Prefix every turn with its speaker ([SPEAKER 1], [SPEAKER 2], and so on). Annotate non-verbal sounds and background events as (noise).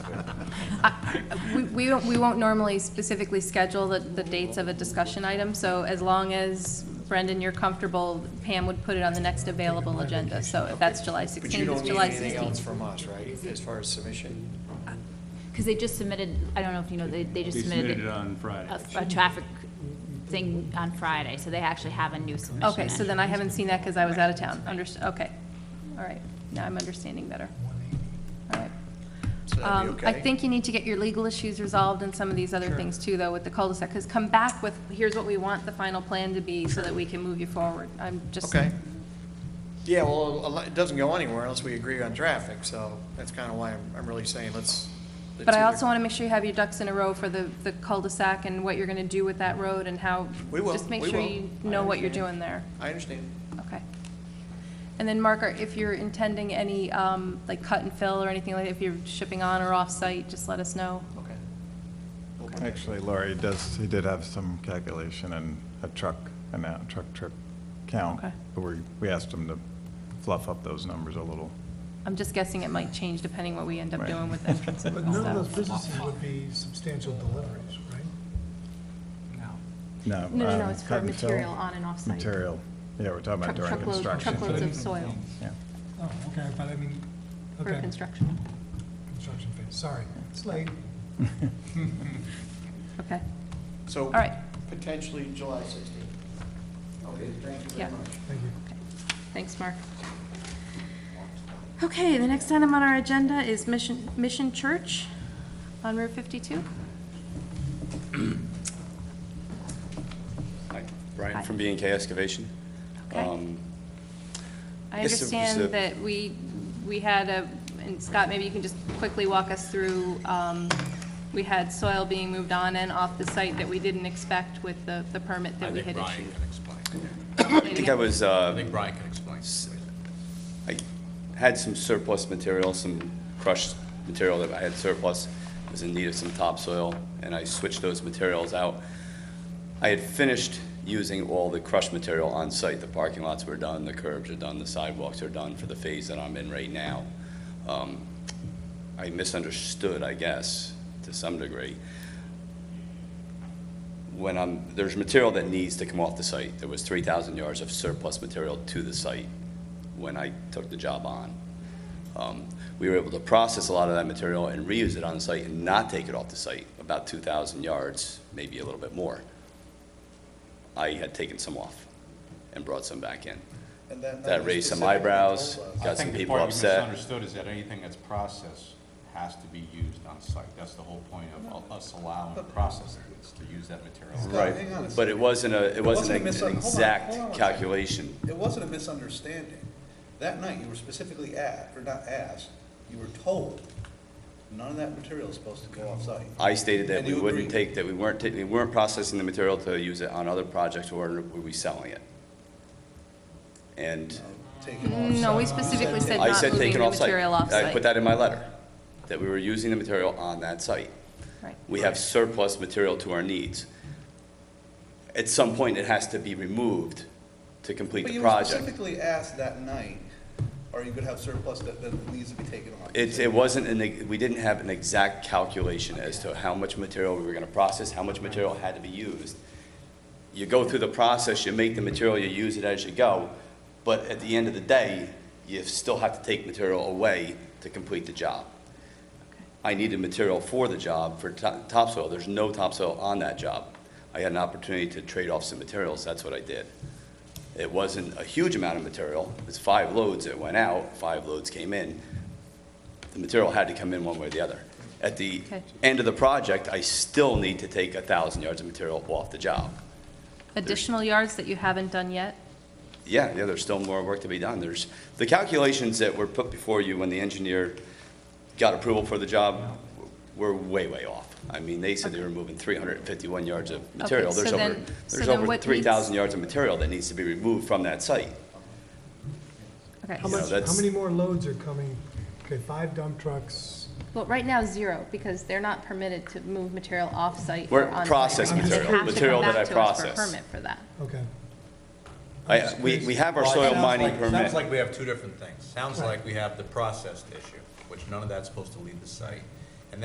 [SPEAKER 1] We, we don't- we won't normally specifically schedule the, the dates of a discussion item, so as long as Brendan, you're comfortable, Pam would put it on the next available agenda, so if that's July
[SPEAKER 2] But you
[SPEAKER 1] sixteenth, it's
[SPEAKER 2] don't need
[SPEAKER 1] July
[SPEAKER 2] anything else
[SPEAKER 1] sixteenth.
[SPEAKER 2] from us, right, as far as submission?
[SPEAKER 3] Because they just submitted, I don't know if you know, they, they just
[SPEAKER 4] They
[SPEAKER 3] submitted.
[SPEAKER 4] submitted it on Friday.
[SPEAKER 3] A, a traffic thing on Friday, so they actually have a new submission.
[SPEAKER 1] Okay, so then I haven't seen that because I was out of town, underst, okay, all right, now I'm understanding better, all right.
[SPEAKER 2] So that'd
[SPEAKER 1] Um,
[SPEAKER 2] be okay?
[SPEAKER 1] I think you need to get your legal issues resolved and some of these other
[SPEAKER 2] Sure.
[SPEAKER 1] things too, though, with the cul-de-sac, because come back with, here's what we want the final plan to be, so that we can move you forward, I'm just.
[SPEAKER 2] Okay. Yeah, well, a lot- it doesn't go anywhere unless we agree on traffic, so that's kind of why I'm, I'm really saying let's. let's
[SPEAKER 1] But I
[SPEAKER 2] either-
[SPEAKER 1] also want to make sure you have your ducks in a row for the, the cul-de-sac and what you're going to do with that road and how.
[SPEAKER 2] We will,
[SPEAKER 1] Just make
[SPEAKER 2] we
[SPEAKER 1] sure
[SPEAKER 2] will.
[SPEAKER 1] you
[SPEAKER 2] I
[SPEAKER 1] know what you're doing
[SPEAKER 2] understand.
[SPEAKER 1] there.
[SPEAKER 2] I understand.
[SPEAKER 1] Okay. And then, Mark, are- if you're intending any, um, like cut and fill or anything like, if you're shipping on or off-site, just let us know.
[SPEAKER 2] Okay.
[SPEAKER 5] Actually, Laurie does, he did have some calculation and a truck, and a truck trip count.
[SPEAKER 1] Okay.
[SPEAKER 5] But we, we asked him to fluff up those numbers a little.
[SPEAKER 1] I'm just guessing it might change depending what we end up
[SPEAKER 5] Right.
[SPEAKER 1] doing with entrances
[SPEAKER 6] (laughs) But
[SPEAKER 1] and
[SPEAKER 6] none of those
[SPEAKER 1] stuff.
[SPEAKER 6] businesses would be substantial deliveries, right?
[SPEAKER 1] No,
[SPEAKER 5] No.
[SPEAKER 1] no, no,
[SPEAKER 5] um,
[SPEAKER 1] it's for
[SPEAKER 5] cut and fill.
[SPEAKER 1] material on and off-site.
[SPEAKER 5] Material, yeah, we're talking about
[SPEAKER 1] Truck-
[SPEAKER 5] during
[SPEAKER 1] truckload-
[SPEAKER 5] construction.
[SPEAKER 1] Truckloads of soil
[SPEAKER 5] Yeah.
[SPEAKER 6] Oh, okay, but I mean,
[SPEAKER 1] for
[SPEAKER 6] okay,
[SPEAKER 1] construction.
[SPEAKER 6] construction phase, sorry, it's late.
[SPEAKER 1] Okay,
[SPEAKER 2] So.
[SPEAKER 1] all right,
[SPEAKER 2] Potentially July sixteenth. Okay, thank you
[SPEAKER 1] Yeah.
[SPEAKER 2] very much.
[SPEAKER 6] Thank you.
[SPEAKER 1] thanks, Mark. Okay, the next item on our agenda is Mission, Mission Church on Route 52.
[SPEAKER 7] Hi,
[SPEAKER 1] Hi.
[SPEAKER 7] Brian from B and K Excavation.
[SPEAKER 1] Okay.
[SPEAKER 7] Um,
[SPEAKER 1] I
[SPEAKER 7] Yes, it was
[SPEAKER 1] understand
[SPEAKER 7] a-
[SPEAKER 1] that we, we had a, and Scott, maybe you can just quickly walk us through, um, we had soil being moved on and off the site that we didn't expect with the, the permit that we had issued.
[SPEAKER 7] I think I was, uh,
[SPEAKER 8] Brian can explain.
[SPEAKER 7] I had some surplus material, some crushed material that I had surplus, was in need of some topsoil, and I switched those materials out. I had finished using all the crushed material on site. The parking lots were done, the curbs are done, the sidewalks are done for the phase that I'm in right now. Um, I misunderstood, I guess, to some degree. When I'm, there's material that needs to come off the site. There was 3,000 yards of surplus material to the site when I took the job on. Um, We were able to process a lot of that material and reuse it on the site and not take it off the site, about 2,000 yards, maybe a little bit more. I had taken some off and brought some back in.
[SPEAKER 2] And then
[SPEAKER 7] That raised some
[SPEAKER 2] specifically
[SPEAKER 7] eyebrows,
[SPEAKER 2] told us-
[SPEAKER 7] got some people
[SPEAKER 8] I think
[SPEAKER 7] upset.
[SPEAKER 8] the part you misunderstood is that anything that's processed has to be used on site. That's the whole point of us allowing processing, is to use that material.
[SPEAKER 7] Right,
[SPEAKER 9] hang on a
[SPEAKER 7] but it wasn't a, it
[SPEAKER 9] wasn't
[SPEAKER 7] wasn't
[SPEAKER 9] a
[SPEAKER 7] an
[SPEAKER 9] misun- hold on, hold on
[SPEAKER 7] exact
[SPEAKER 9] one second.
[SPEAKER 7] calculation.
[SPEAKER 9] It wasn't a misunderstanding. That night, you were specifically asked, or not asked, you were told, none of that material is supposed to go off-site.
[SPEAKER 7] I stated that
[SPEAKER 9] And
[SPEAKER 7] we
[SPEAKER 9] you
[SPEAKER 7] wouldn't
[SPEAKER 9] agreed.
[SPEAKER 7] take, that we weren't, ta- we weren't processing the material to use it on other projects or were we selling it? And
[SPEAKER 9] Take it off-site.
[SPEAKER 1] No, we specifically said
[SPEAKER 7] I
[SPEAKER 1] not
[SPEAKER 7] said
[SPEAKER 1] moving
[SPEAKER 7] taken
[SPEAKER 1] the
[SPEAKER 7] off site.
[SPEAKER 1] material off site.
[SPEAKER 7] I put that in my letter, that we were using the material on that site.
[SPEAKER 1] Right.
[SPEAKER 7] We have surplus material to our needs. At some point, it has to be removed to complete
[SPEAKER 9] But
[SPEAKER 7] the
[SPEAKER 9] you were
[SPEAKER 7] project.
[SPEAKER 9] specifically asked that night, are you gonna have surplus that, that needs to be taken off?
[SPEAKER 7] It, it wasn't an, we didn't have an exact calculation as to how much material we were gonna process, how much material had to be used. You go through the process, you make the material, you use it as you go, but at the end of the day, you still have to take material away to complete the job. I needed material for the job, for to- topsoil. There's no topsoil on that job. I had an opportunity to trade off some materials, that's what I did. It wasn't a huge amount of material. It was five loads that went out, five loads came in. The material had to come in one way or the other. At the
[SPEAKER 1] Okay.
[SPEAKER 7] end of the project, I still need to take 1,000 yards of material off the job.
[SPEAKER 1] Additional yards that you haven't done yet?
[SPEAKER 7] Yeah, yeah, there's still more work to be done. There's, the calculations that were put before you when the engineer got approval for the job were way, way off. I mean, they said they were moving 351 yards of material.
[SPEAKER 1] so
[SPEAKER 7] There's over,
[SPEAKER 1] then- so
[SPEAKER 7] there's
[SPEAKER 1] then
[SPEAKER 7] over
[SPEAKER 1] what
[SPEAKER 7] 3,000 yards of material that needs to be removed from that site.
[SPEAKER 1] Okay,
[SPEAKER 6] How
[SPEAKER 7] Yeah,
[SPEAKER 6] much, how
[SPEAKER 7] that's-
[SPEAKER 6] many more loads are coming? Okay, five dump trucks.
[SPEAKER 1] well, right now, zero, because they're not permitted to move material off-site
[SPEAKER 7] We're
[SPEAKER 1] or on-site.
[SPEAKER 7] processing
[SPEAKER 1] They
[SPEAKER 6] material,
[SPEAKER 1] have to come
[SPEAKER 7] material that
[SPEAKER 1] back to
[SPEAKER 7] I
[SPEAKER 1] us for a
[SPEAKER 7] process.
[SPEAKER 1] Permit for that.
[SPEAKER 6] Okay.
[SPEAKER 7] I, we, we have our
[SPEAKER 8] Well, it
[SPEAKER 7] soil
[SPEAKER 8] sounds
[SPEAKER 7] mining
[SPEAKER 8] like-
[SPEAKER 7] permit.
[SPEAKER 8] Sounds like we have two different things. Sounds like we have the processed issue, which none of that's supposed to leave the site.